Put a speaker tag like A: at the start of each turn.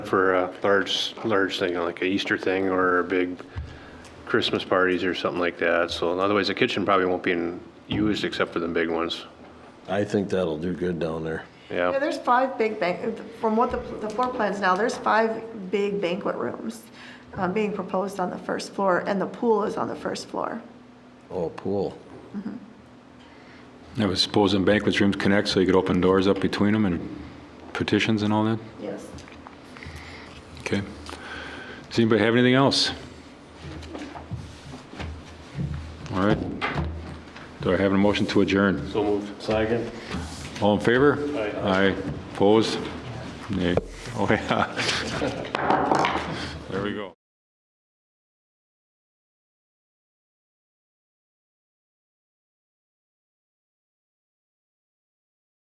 A: for a large, large thing, like a Easter thing or a big Christmas parties or something like that. So otherwise, the kitchen probably won't be in- used except for the big ones.
B: I think that'll do good down there.
A: Yeah.
C: Yeah, there's five big bank, from what the, the floor plans now, there's five big banquet rooms uh, being proposed on the first floor, and the pool is on the first floor.
B: Oh, pool.
D: I was supposing banquet rooms connect so you could open doors up between them and petitions and all that?
C: Yes.
D: Okay. Does anybody have anything else? All right. Do I have a motion to adjourn?
A: So moved. Second.
D: All in favor? Aye. Opposed? Nay. Oh, yeah. There we go.